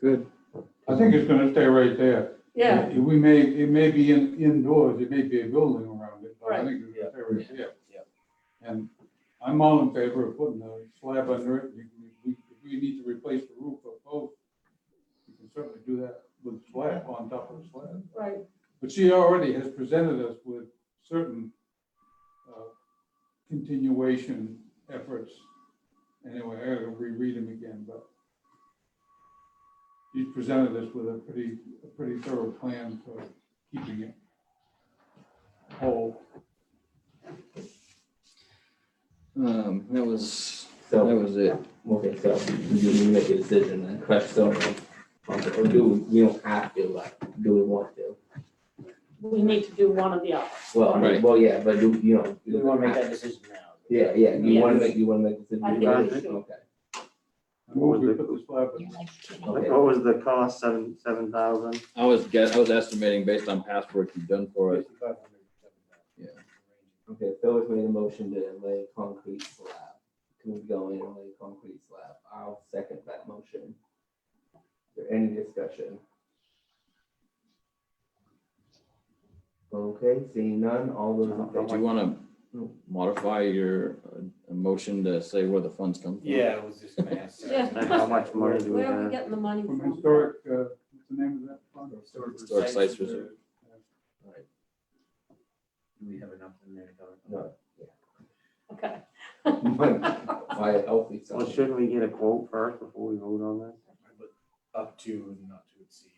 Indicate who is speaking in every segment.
Speaker 1: Good.
Speaker 2: I think it's gonna stay right there.
Speaker 3: Yeah,
Speaker 2: We may, it may be in, indoors, it may be a building around it, but I
Speaker 3: Right.
Speaker 2: think it's gonna stay right there.
Speaker 4: Yeah.
Speaker 2: And I'm all in favor of putting a slab under it, You- you- we, if we need to replace the roof or both, you can certainly do that with slab, on top of the slab.
Speaker 3: right,
Speaker 2: But she already has presented us with certain uh, continuation efforts. Anyway, I gotta reread them again, but she's presented us with a pretty, a pretty thorough plan for keeping it whole.
Speaker 1: Um, that was, that
Speaker 4: So,
Speaker 1: was it.
Speaker 4: okay, so do we make a decision then, correct, so, um, or do, we we don't have to, like, do we want to?
Speaker 3: we need to do one of the other.
Speaker 4: Well, I mean,
Speaker 1: Right.
Speaker 4: well, yeah, but do, you know.
Speaker 5: We want to make that decision now.
Speaker 4: Yeah, yeah, you wanna
Speaker 3: Yes.
Speaker 4: make, you wanna make a decision?
Speaker 3: I think
Speaker 4: about
Speaker 3: we
Speaker 4: it?
Speaker 3: should.
Speaker 4: Okay.
Speaker 2: I move we put this slab in.
Speaker 4: Okay.
Speaker 5: What was the cost, seven, seven thousand?
Speaker 1: I was guess, I was estimating based on past work you've done for us. Yeah.
Speaker 4: Okay, Phil has made a motion to lay concrete slab. Can we go in and lay concrete slab? I'll second that motion. Is there any discussion? Okay, seeing none, all those in
Speaker 1: Did you
Speaker 4: favor?
Speaker 1: want to modify your uh, motion to say where the funds come from?
Speaker 6: Yeah, I was just gonna ask. that.
Speaker 3: Yeah.
Speaker 5: And how much money do we
Speaker 3: Where are we
Speaker 5: have?
Speaker 3: getting the money
Speaker 2: From
Speaker 3: from?
Speaker 2: historic, uh, what's the name of that? fund?
Speaker 1: Historic Sites Reserve.
Speaker 6: Do we have enough in there to cover?
Speaker 4: No,
Speaker 3: Okay,
Speaker 4: my healthy
Speaker 5: Well,
Speaker 4: self.
Speaker 5: shouldn't we get a quote first before we vote on this?
Speaker 6: But Up to and not to exceed.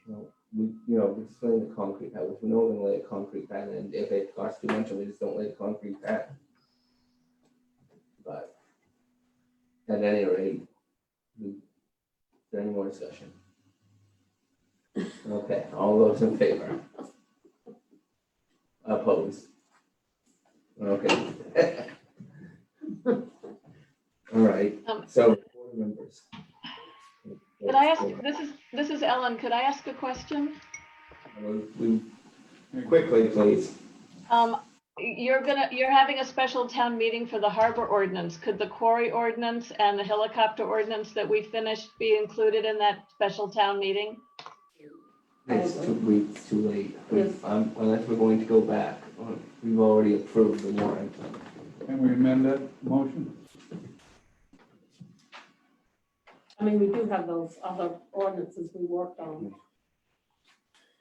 Speaker 4: We, you know, we explain the concrete pad, if we know we're gonna lay a concrete pad and if it costs too much, we just don't lay a concrete pad. But at any rate, we, is there any more discussion? Okay, all those in favor? Opposed? Okay. All right,
Speaker 7: Um,
Speaker 4: so board members.
Speaker 7: Could I ask, this is, this is Ellen, could I ask a question?
Speaker 4: We- Quickly, please.
Speaker 7: Um, you're gonna, you're having a special town meeting for the harbor ordinance. Could the quarry ordinance and the helicopter ordinance that we finished be included in that special town meeting?
Speaker 4: It's
Speaker 3: Okay.
Speaker 4: two weeks too late. We-
Speaker 3: Yes.
Speaker 4: um, Unless we're going to go back, uh, we've already approved the warrant.
Speaker 2: Can we amend that motion?
Speaker 3: I mean, we do have those other ordinances we worked on.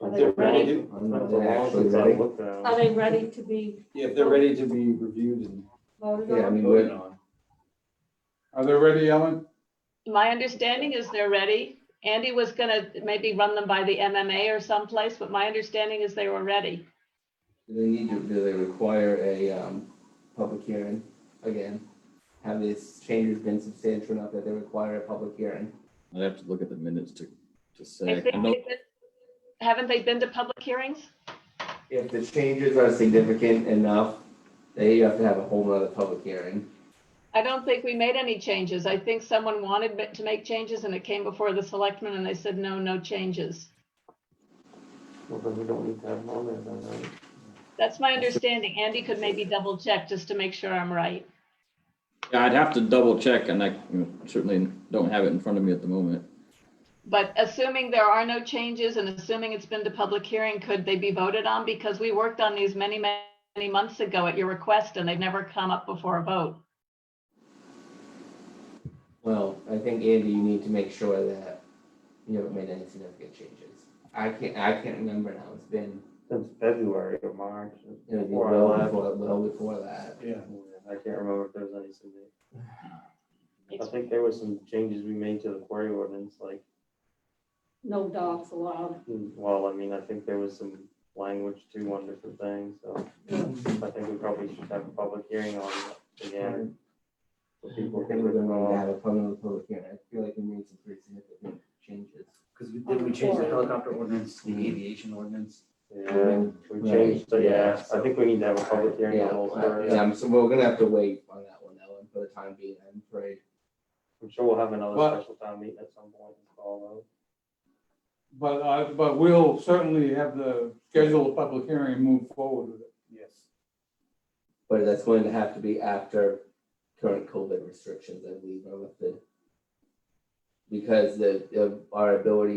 Speaker 3: Are they
Speaker 5: They're
Speaker 3: ready? Oh,
Speaker 4: I'm not actually ready.
Speaker 3: Are they ready to be
Speaker 6: Yeah, if they're ready to be reviewed and
Speaker 3: voted
Speaker 4: Yeah, I
Speaker 3: on?
Speaker 4: mean,
Speaker 6: voted
Speaker 4: we're,
Speaker 6: on.
Speaker 2: Are they ready, Ellen?
Speaker 7: My understanding is they're ready. Andy was gonna maybe run them by the MMA or someplace, but my understanding is they were ready.
Speaker 4: do they need to, do they require a, um, public hearing again? Have these changes been substantial enough that they require a public hearing?
Speaker 1: I'd have to look at the minutes to, to say.
Speaker 7: If they-
Speaker 1: I know-
Speaker 7: Haven't they been to public hearings?
Speaker 4: If the changes are significant enough, they have to have a whole nother public hearing.
Speaker 7: I don't think we made any changes. I think someone wanted ma- to make changes and it came before the selectmen and they said, no, no changes.
Speaker 5: Well, then we don't need to have them on there then, right?
Speaker 7: That's my understanding. Andy could maybe double check just to make sure I'm right.
Speaker 1: Yeah, I'd have to double check and I you know, certainly don't have it in front of me at the moment.
Speaker 7: But assuming there are no changes and assuming it's been to public hearing, could they be voted on? Because we worked on these many, many months ago at your request and they've never come up before a vote.
Speaker 4: Well, I think Andy, you need to make sure that you haven't made any significant changes. I can't, I can't remember now, it's been,
Speaker 5: Since February or March,
Speaker 4: it was
Speaker 5: before I
Speaker 4: well
Speaker 5: left.
Speaker 4: before, well before that.
Speaker 6: Yeah.
Speaker 5: I can't remember if there was any significant. I think there was some changes we made to the quarry ordinance, like, hmm,
Speaker 3: No dogs allowed.
Speaker 5: well, I mean, I think there was some language too on different things, so
Speaker 3: Mm-hmm.
Speaker 5: I think we probably should have a public hearing on it again. So people
Speaker 4: I
Speaker 5: can
Speaker 4: think we're gonna
Speaker 5: recall.
Speaker 4: have a public, public hearing, I feel like we made some pretty significant changes.
Speaker 6: Because we, did we change the helicopter ordinance, the aviation ordinance?
Speaker 5: Yeah, we changed, so yeah, I think we need to have a public hearing on the whole
Speaker 4: Yeah,
Speaker 5: story.
Speaker 4: yeah, I'm- so we're gonna have to wait on that one, Ellen, for the time being, I'm afraid.
Speaker 5: I'm sure we'll have another
Speaker 2: But-
Speaker 5: special town meeting at some point, follow.
Speaker 2: But I, but we'll certainly have the schedule a public hearing and move forward with it.
Speaker 6: Yes.
Speaker 4: But that's going to have to be after current COVID restrictions, I believe, are lifted. Because the, of our ability